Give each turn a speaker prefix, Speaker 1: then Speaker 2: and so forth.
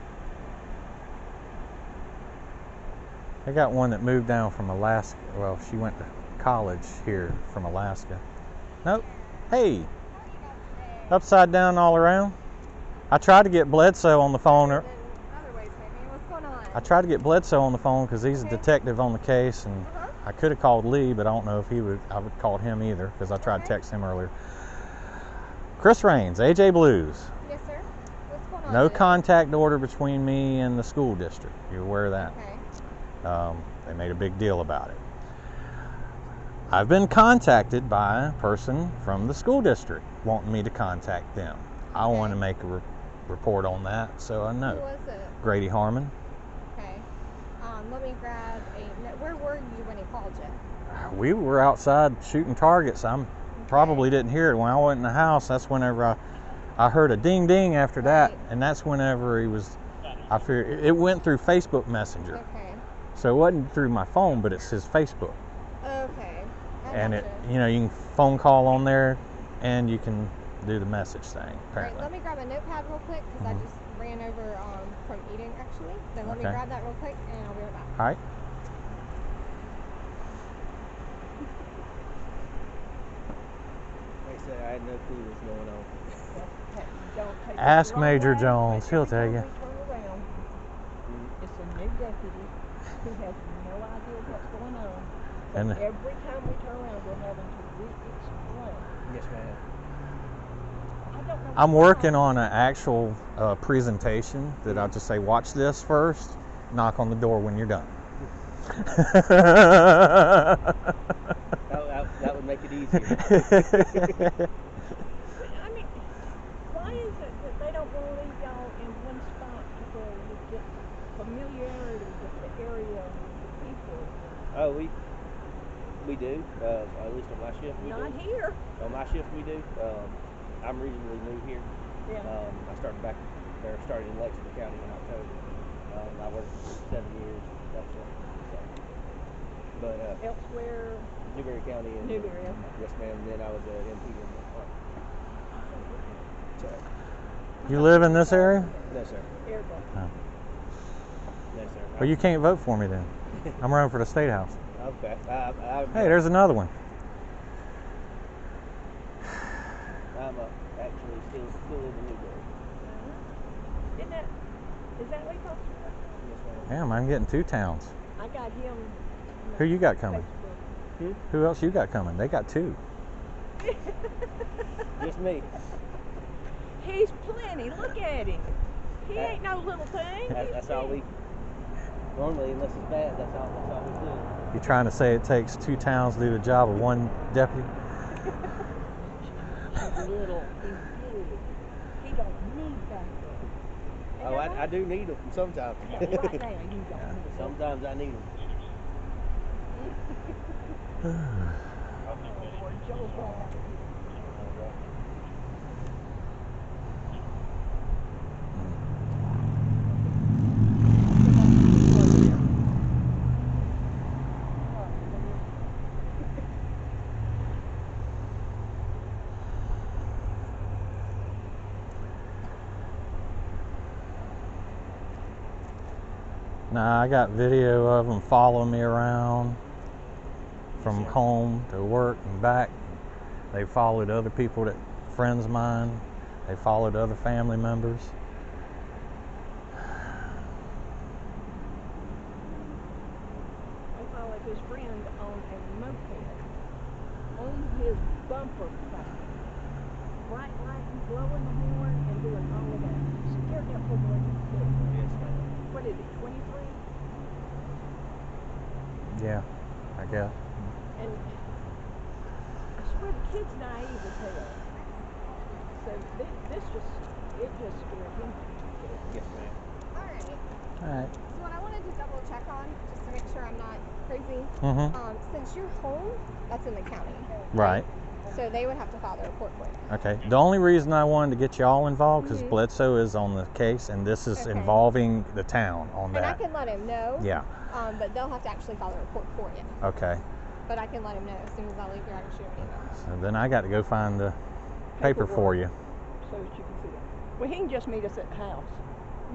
Speaker 1: I got one that moved down from Alaska. Well, she went to college here from Alaska. Nope. Hey, upside down all around. I tried to get Bledsoe on the phone. or-
Speaker 2: Other ways, maybe. What's going on?
Speaker 1: I tried to get Bledsoe on the phone because he's a
Speaker 2: Okay.
Speaker 1: detective on the case, and
Speaker 2: Uh-huh.
Speaker 1: I could have called Lee, but I don't know if he would. I would call him either because I tried to
Speaker 2: Okay.
Speaker 1: text him earlier. Chris Raines, AJ Blues.
Speaker 2: Yes, sir. What's going on?
Speaker 1: No
Speaker 2: today?
Speaker 1: contact order between me and the school district. You're aware of that?
Speaker 2: Okay.
Speaker 1: Um, they made a big deal about it. I've been contacted by a person from the school district wanting me to contact them. I
Speaker 2: Okay.
Speaker 1: want to make a re- report on that, so I
Speaker 2: Who
Speaker 1: know.
Speaker 2: was it?
Speaker 1: Grady Harmon.
Speaker 2: Okay. Um, let me grab a. no- Where were you when he called you?
Speaker 1: We were outside shooting targets. I am probably didn't hear it. When I went in the house, that's whenever I, I heard a ding ding after that,
Speaker 2: Right.
Speaker 1: and that's whenever he was. I fear it went through Facebook Messenger,
Speaker 2: Okay.
Speaker 1: so it wasn't through my phone, but it's his Facebook.
Speaker 2: Okay. I
Speaker 1: and it
Speaker 2: gotcha.
Speaker 1: you know you can phone call on there and you can do the message thing
Speaker 2: Alright,
Speaker 1: apparently
Speaker 2: let me grab a notepad real quick because
Speaker 1: Mhm.
Speaker 2: I just ran over um, from eating actually. So let me
Speaker 1: Okay.
Speaker 2: grab that real quick and I'll be right back.
Speaker 1: all right
Speaker 3: Like I said, I had no clue what was going on.
Speaker 1: Ask Major Jones, he'll tell you.
Speaker 4: It's a new deputy who has no idea what's going on. So
Speaker 1: And-
Speaker 4: every time we turn around, we're having to re-explain.
Speaker 3: Yes, ma'am.
Speaker 4: I don't know.
Speaker 1: i'm working on an actual uh, presentation that i'll just say watch this first knock on the door when you're done
Speaker 3: That, that, that would make it easier.
Speaker 4: I mean, why is it that they don't want to leave y'all in one spot to where you get familiarity with the area and with the people?
Speaker 3: oh, we we do. Uh, at least on my shift, we
Speaker 4: Not
Speaker 3: do.
Speaker 4: here.
Speaker 3: On my shift, we do. Um, I'm reasonably new here.
Speaker 4: Yeah.
Speaker 3: Um, I started back there, started in Lexington County in October. Um, I worked for seven years. That's it. So, but uh,
Speaker 4: Elsewhere,
Speaker 3: Newberry County and
Speaker 4: Newberry, okay.
Speaker 3: Yes, ma'am. And then I was an MP in the park. So,
Speaker 1: you live in this area
Speaker 3: no, sir.
Speaker 4: everybody.
Speaker 3: No, sir.
Speaker 1: well you can't vote for me then i'm running for the state house
Speaker 3: Okay. I, I,
Speaker 1: hey there's another one
Speaker 3: I'm uh, actually still still in the Newberry.
Speaker 4: Isn't that, is that Lee Foster?
Speaker 3: Yes, ma'am.
Speaker 1: damn i'm getting two towns
Speaker 4: I got him. on
Speaker 1: Who you got coming?
Speaker 4: Facebook.
Speaker 1: who else you got coming they got two
Speaker 3: Just me.
Speaker 4: He's plenty. Look at him. He ain't no little thing.
Speaker 3: That,
Speaker 4: He's
Speaker 3: that's all
Speaker 4: big.
Speaker 3: we. Normally, unless it's bad, that's all. That's all we do.
Speaker 1: you trying to say it takes two towns to do the job of one deputy
Speaker 4: He's little. He's big. He don't need that. And
Speaker 3: Oh,
Speaker 4: now
Speaker 3: I, I do need them sometimes.
Speaker 4: Yeah, right now, you don't need that.
Speaker 3: sometimes I need them.
Speaker 4: Oh, Or Joe's gonna have
Speaker 3: Mm.
Speaker 4: to
Speaker 1: Nah, I got video of them following me around from home to work and back. They followed other people that friends of mine. They followed other family members.
Speaker 4: They followed his friend on a moped on his bumper car. Bright light, blowing the horn, and doing all of that. Scared that poor boy to death.
Speaker 3: Yes, ma'am.
Speaker 4: What is it? Twenty-three?
Speaker 1: Yeah, I guess.
Speaker 4: And I swear the kid's naive as hell. So this, this just, it just scared him.
Speaker 3: Yes, ma'am.
Speaker 2: Alright. So
Speaker 1: All right.
Speaker 2: what I wanted to double check on, just to make sure I'm not crazy,
Speaker 1: Mm-hmm.
Speaker 2: um, since you're home, that's in the county.
Speaker 1: Right.
Speaker 2: So they would have to file the report for you.
Speaker 1: Okay. The only reason I wanted to get y'all involved because
Speaker 2: Mhm.
Speaker 1: Bledsoe is on the case, and this is
Speaker 2: Okay.
Speaker 1: involving the town on
Speaker 2: And I
Speaker 1: that.
Speaker 2: can let him know.
Speaker 1: Yeah.
Speaker 2: Um, but they'll have to actually file the report for you.
Speaker 1: Okay.
Speaker 2: But I can let him know as soon as I leave here. I can shoot him an email.
Speaker 1: So then I got to go find the paper for you.
Speaker 4: So that you can see it. Well, he can just meet us at the house.